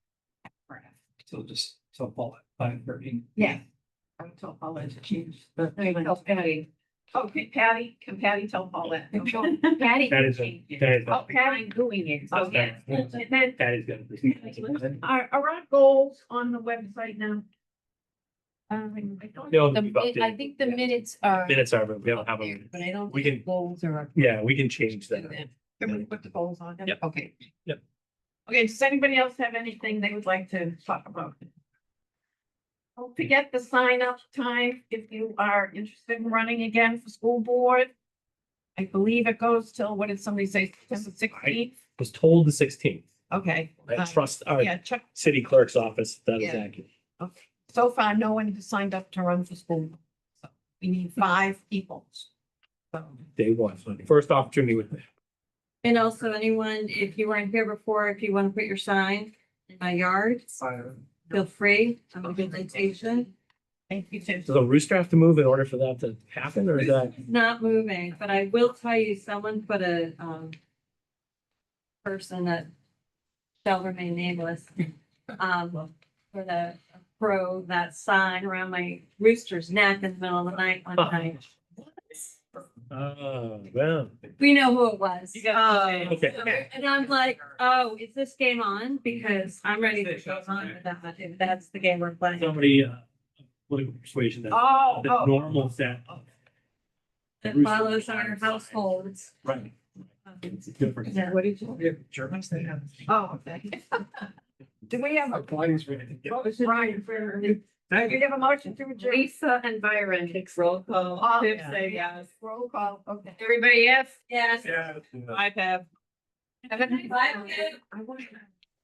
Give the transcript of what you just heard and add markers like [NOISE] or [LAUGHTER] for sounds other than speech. So just, so bullet, five thirteen. Yeah. I'm told Paulette to change. the- Tell Patty. Oh, can Patty, can Patty tell Paulette? [LAUGHS] Okay. Patty. That is a- changed it. that is a- Oh, Patty doing it. Oh, yeah. And then, That is gonna be. are, are our goals on the website now? Um, I don't. They'll The be mi- I updated. think the minutes are. Minutes are, but we don't have there, them. But I don't We think the can- goals are. up Yeah, we can change to that. them. Can we put the goals on? Yep. Okay. Okay, does anybody else have anything they would like to talk about? Don't forget the sign up time if you are interested in running again for school board. I believe it goes till, what did somebody say, September sixteenth? Was told the sixteenth. Okay. I uh, trust our Yeah, check, city clerk's office. if That is Yeah. accurate. so far, no one has signed up to run for school. So We need five people. So, Day one, first opportunity with. And also anyone, if you weren't here before, if you want to put your sign in my yard, feel free. I'm a good invitation. thank you, Tim. Does a rooster have to move in order for that to happen or is that? It's Not moving, but I will tell you, someone put a, um, person that shall remain nameless, um, for the pro that sign around my rooster's neck in the middle of the night one night. Oh, well. We know who it was. You got it. Uh, Um, Okay. And I'm like, oh, is this game on? Because I'm ready to go on with that, if that's the game we're playing. Somebody, uh, political persuasion that, Oh, that oh, normal that. that follows our households. Right. It's different. Yeah. what did you, We have Germans, they have. oh, okay. Do we have, a- Applying's ready. Oh, what was Brian, do Thank we have a motion to adjourn? Lisa and Byron. Roll call. Oh, Tiff yeah. say yes. Roll call, okay. Everybody, yes? Yes. Yeah. I have Have a nice Bye. night.